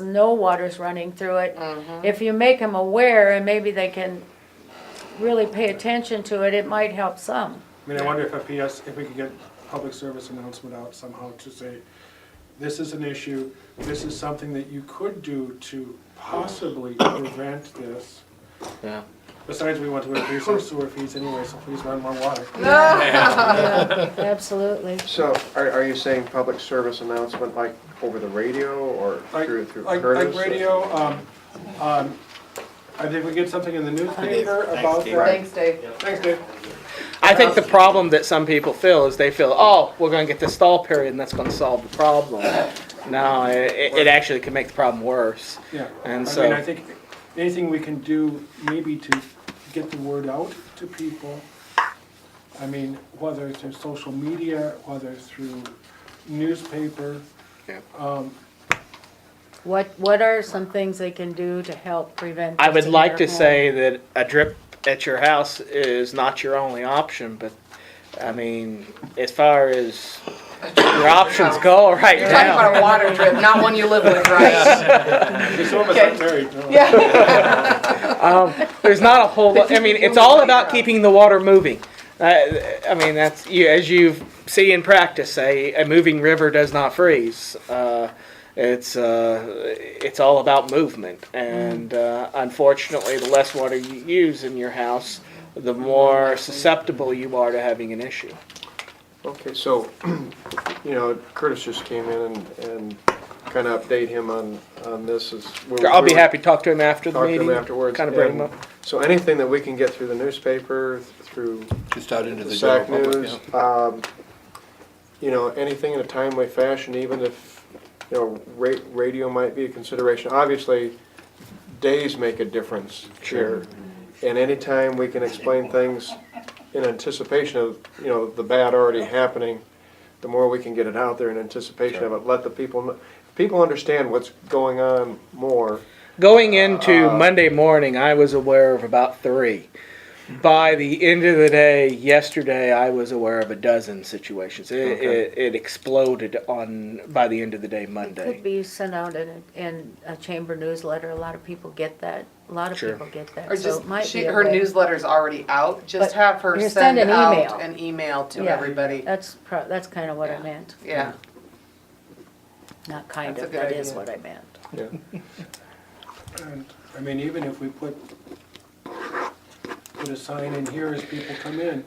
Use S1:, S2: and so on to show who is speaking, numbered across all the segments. S1: no water's running through it.
S2: Mhm.
S1: If you make them aware and maybe they can really pay attention to it, it might help some.
S3: I mean, I wonder if a PS, if we could get public service announcement out somehow to say, this is an issue, this is something that you could do to possibly prevent this.
S4: Yeah.
S3: Besides, we want to increase our sewer fees anyway, so please run more water.
S1: Yeah, Absolutely.
S5: So are, are you saying public service announcement like over the radio or
S3: Like,
S5: through, through
S3: like,
S5: Curtis? uh,
S3: like radio, um, um, I think we get something in the newspaper about
S4: Dave.
S3: that.
S2: Thanks, Dave.
S3: Thanks, Dave.
S4: I think the problem that some people feel is they feel, oh, we're gonna get this stall period and that's gonna solve the problem. No, it, it actually can make the problem worse.
S3: Yeah.
S4: And
S3: I
S4: so-
S3: mean, I think anything we can do maybe to get the word out to people, I mean, whether it's through social media, whether it's through newspaper,
S1: What, what are some things they can do to help prevent?
S4: I would
S1: this
S4: like to
S1: from
S4: say that a drip at your house is not your only option, but, I mean, as far as your options go right
S2: You're talking
S4: now.
S2: about a water drip, not one you live with, right?
S3: there's some of us
S2: Okay.
S3: aren't married, no.
S2: Yeah.
S4: There's not a whole lot, I mean, it's all about keeping the water moving. Uh, I mean, that's, you, as you see in practice, a, a moving river does not freeze. Uh, it's, uh, it's all about movement. And uh, unfortunately, the less water you use in your house, the more susceptible you are to having an issue.
S5: Okay, so, you know, Curtis just came in and, and kind of update him on, on this is. we-
S4: I'll
S5: we
S4: be
S5: were-
S4: happy to talk to him after the
S5: Talk to
S4: meeting.
S5: him afterwards.
S4: Kind of bring him
S5: and
S4: up.
S5: So anything that we can get through the newspaper, through
S6: Just out into
S5: the
S6: the
S5: SAC
S6: general public.
S5: news, um, you know, anything in a timely fashion, even if, you know, ra- radio might be a consideration. Obviously, days make a difference here. And anytime we can explain things in anticipation of, you know, the bad already happening, the more we can get it out there in anticipation of it, let the people, kn- people understand what's going on more.
S4: Going into Monday morning, I was aware of about three. By the end of the day, yesterday, I was aware of a dozen situations. It, it, it exploded on by the end of the day
S1: Could
S4: Monday.
S1: be sent out in, a- in a chamber newsletter, a lot of people get that, a lot of
S4: Sure.
S1: people get
S2: Or
S1: that, so
S2: just,
S1: it might
S2: she,
S1: be a
S2: her
S1: way.
S2: newsletter's already out, just
S1: But
S2: have her
S1: you send
S2: send
S1: an
S2: out
S1: email.
S2: an email to
S1: Yeah. Uh,
S2: everybody.
S1: That's pro, that's kinda what I meant,
S2: Yeah,
S1: not kind
S2: That's a
S1: of,
S2: good
S1: that is
S2: idea.
S1: what I meant.
S5: Yeah.
S3: And, I mean, even if we put, put a sign in here as people come in,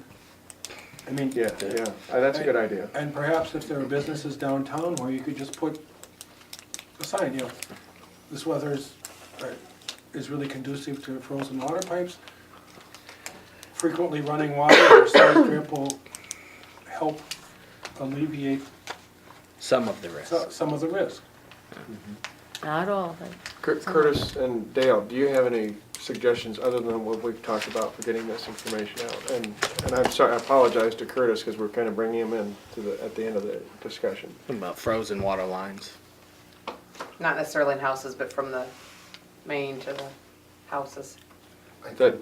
S3: I mean,
S5: Yeah, yeah, Uh, that's a good idea.
S3: and perhaps if there are businesses downtown where you could just put a sign, you know, this weather is, uh, is really conducive to frozen water pipes. Frequently running water or sand drip will help alleviate
S4: Some of the rest.
S3: so- some of the risk.
S1: Not all, but.
S5: Cur- Curtis and Dale, do you have any suggestions other than what we've talked about for getting this information out? And, and I'm sorry, I apologize to Curtis because we're kind of bringing him in to the, at the end of the discussion.
S4: What about frozen water lines?
S2: not necessarily in houses, but from the main to the houses,
S5: That,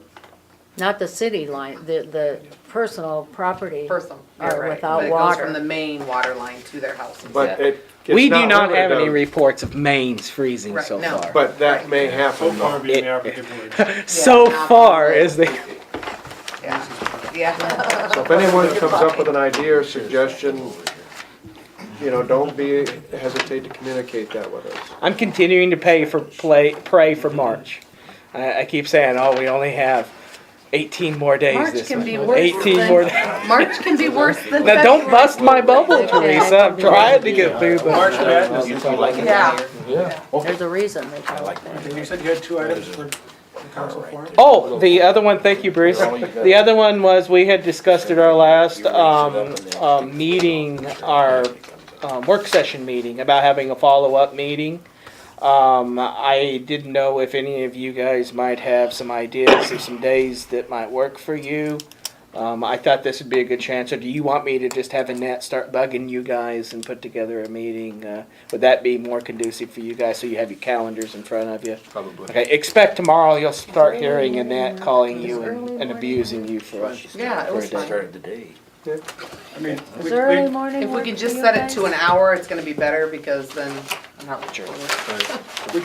S1: Not the city line, the, the personal property.
S2: personal.
S1: Or
S2: You're right.
S1: without
S2: But it goes
S1: water.
S2: From the main water line to their houses.
S5: but
S2: yeah.
S5: it. it's
S4: we do not
S5: limited
S4: have any
S5: to-
S4: reports of mains freezing
S2: Right,
S4: so
S2: no.
S4: far.
S5: But that may happen. though.
S3: being the applicant would.
S4: so
S2: Yeah.
S4: far is the
S2: Yeah. Yeah.
S5: So if anyone comes up with an idea or suggestion, you know, don't be, hesitate to communicate that with us.
S4: I'm continuing to pay for play pray for March. I, I keep saying, oh, we only have 18 more days.
S2: March
S4: this
S2: can
S4: month.
S2: be worse
S4: 18
S2: than-
S4: more days.
S2: March can be worse than
S4: Now, don't
S2: February.
S4: bust my bubble, Teresa. I'm trying to get through
S3: March
S4: the.
S3: Madness,
S2: Yeah.
S1: There's a reason they call it that.
S3: you said you had two items for the council forum?
S4: Oh, the other one, thank you, Bruce. The other one was, we had discussed at our last, um, um, meeting, our, um, work session meeting about having a follow-up meeting. Um, I didn't know if any of you guys might have some ideas of some days that might work for you. Um, I thought this would be a good chance, or do you want me to just have Annette start bugging you guys and put together a meeting? Uh, Would that be more conducive for you guys, so you have your calendars in front of you?
S6: Probably.
S4: Okay, expect tomorrow you'll start hearing Annette calling you and, and abusing you for it.
S2: Yeah, it was
S4: For a day.
S2: fine.
S6: the day.
S3: I mean, we-
S1: Is early
S3: we-
S1: morning
S2: If we
S1: work
S2: could
S1: for
S2: just
S1: you
S2: set it
S1: guys?
S2: to an hour, it's gonna be better because then I'm not.
S4: Sure.